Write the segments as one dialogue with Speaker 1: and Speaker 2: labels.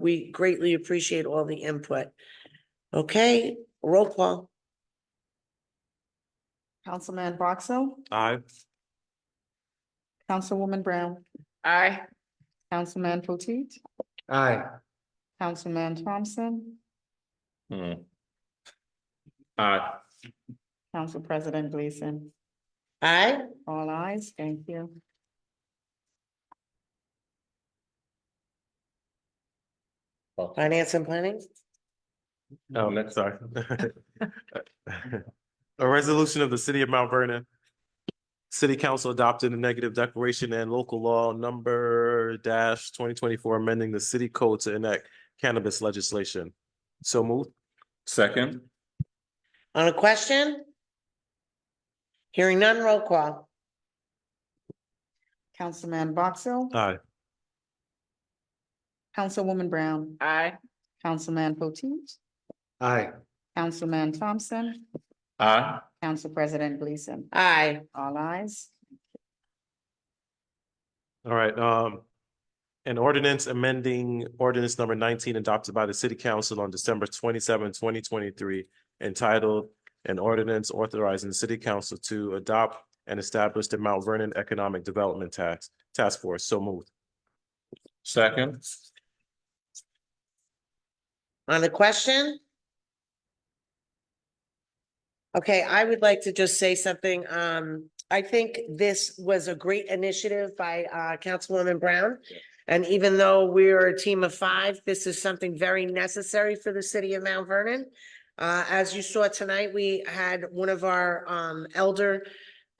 Speaker 1: We greatly appreciate all the input. Okay, roll call.
Speaker 2: Councilman Boxell,
Speaker 3: Aye.
Speaker 2: Councilwoman Brown,
Speaker 4: Aye.
Speaker 2: Councilman Potteet,
Speaker 3: Aye.
Speaker 2: Councilman Thompson,
Speaker 5: Hmm.
Speaker 3: Aye.
Speaker 2: Council President Gleason.
Speaker 1: Aye,
Speaker 2: All eyes. thank you.
Speaker 1: finance and planning.
Speaker 3: Oh, next, sorry. A resolution of the city of Mount Vernon. City Council adopted a negative declaration and local law number dash twenty twenty-four, amending the city code to enact cannabis legislation. So moved.
Speaker 5: Second,
Speaker 1: On a question? Hearing none, roll call.
Speaker 2: Councilman Boxell,
Speaker 3: Aye.
Speaker 2: Councilwoman Brown,
Speaker 4: Aye.
Speaker 2: Councilman Potteet,
Speaker 3: Aye.
Speaker 2: Councilman Thompson,
Speaker 5: aye,
Speaker 2: Council President Gleason.
Speaker 1: Aye,
Speaker 2: All eyes.
Speaker 3: All right, um, an ordinance amending ordinance number nineteen adopted by the city council on December 27, 2023, entitled an ordinance authorizing the city council to adopt and establish the Mount Vernon Economic Development Tax Task Force. So moved.
Speaker 5: second,
Speaker 1: on a question? Okay, I would like to just say something. Um, I think this was a great initiative by uh Councilwoman Brown. And even though we're a team of five, this is something very necessary for the city of Mount Vernon. Uh, as you saw tonight, we had one of our um elder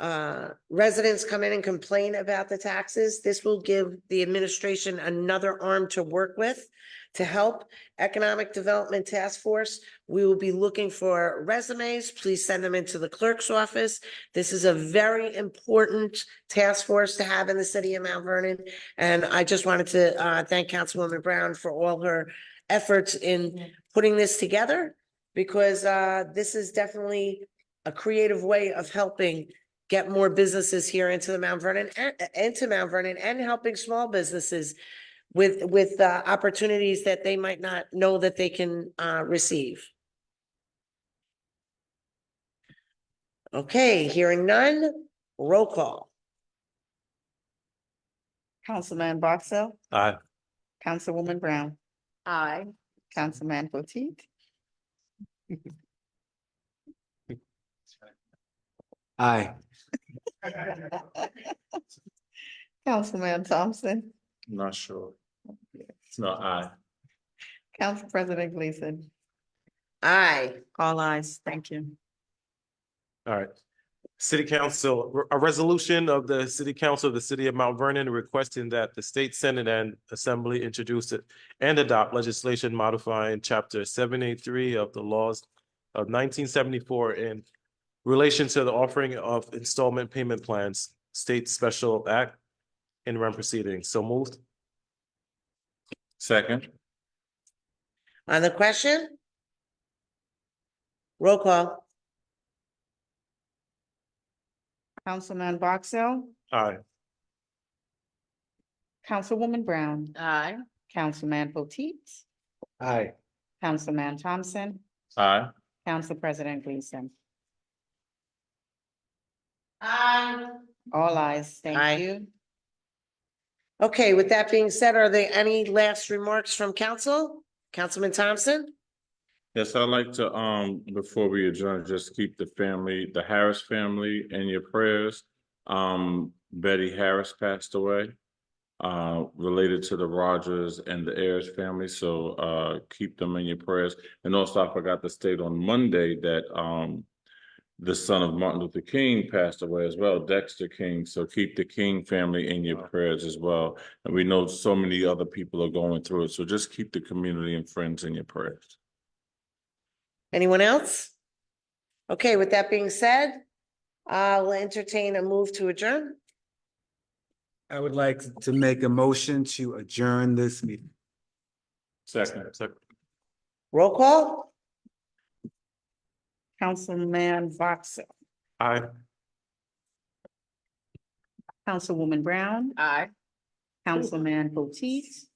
Speaker 1: uh residents come in and complain about the taxes. This will give the administration another arm to work with to help Economic Development Task Force. We will be looking for resumes. Please send them into the clerk's office. This is a very important task force to have in the city of Mount Vernon. And I just wanted to uh thank Councilwoman Brown for all her efforts in putting this together because uh this is definitely a creative way of helping get more businesses here into the Mount Vernon, a- into Mount Vernon and helping small businesses with, with uh, opportunities that they might not know that they can uh, receive. Okay, hearing none, roll call.
Speaker 2: Councilman Boxell,
Speaker 3: Aye.
Speaker 2: Councilwoman Brown,
Speaker 4: Aye.
Speaker 2: Councilman Potteet,
Speaker 3: Aye.
Speaker 2: Councilman Thompson,
Speaker 5: not sure. It's not aye,
Speaker 2: Council President Gleason.
Speaker 1: Aye,
Speaker 2: All eyes. thank you.
Speaker 3: All right. City Council, a resolution of the City Council of the City of Mount Vernon requesting that the State Senate and Assembly introduce it and adopt legislation modifying Chapter seven eight three of the laws of nineteen seventy-four in relation to the offering of installment payment plans, State Special Act in rem proceedings. So moved.
Speaker 5: second,
Speaker 1: on the question? Roll call.
Speaker 2: Councilman Boxell,
Speaker 3: Aye.
Speaker 2: Councilwoman Brown,
Speaker 4: Aye.
Speaker 2: Councilman Potteet,
Speaker 3: Aye.
Speaker 2: Councilman Thompson,
Speaker 5: aye,
Speaker 2: Council President Gleason.
Speaker 1: Aye.
Speaker 2: All eyes.
Speaker 1: Aye.
Speaker 2: thank you.
Speaker 1: Okay, with that being said, are there any last remarks from council? Councilman Thompson?
Speaker 5: yes, I'd like to, um, before we adjourn, just keep the family, the Harris family in your prayers. Um, Betty Harris passed away, uh, related to the Rogers and the Ayers family, so, uh, keep them in your prayers. And also, I forgot to state on Monday that, um, the son of Martin Luther King passed away as well, Dexter King, so keep the King family in your prayers as well. And we know so many other people are going through it, so just keep the community and friends in your prayers.
Speaker 1: Anyone else? Okay, with that being said, I'll entertain a move to adjourn.
Speaker 6: I would like to make a motion to adjourn this meeting.
Speaker 5: Second.
Speaker 1: Roll call?
Speaker 2: Councilman Boxell,
Speaker 3: Aye.
Speaker 2: Councilwoman Brown,
Speaker 4: Aye.
Speaker 2: Councilman Potteet,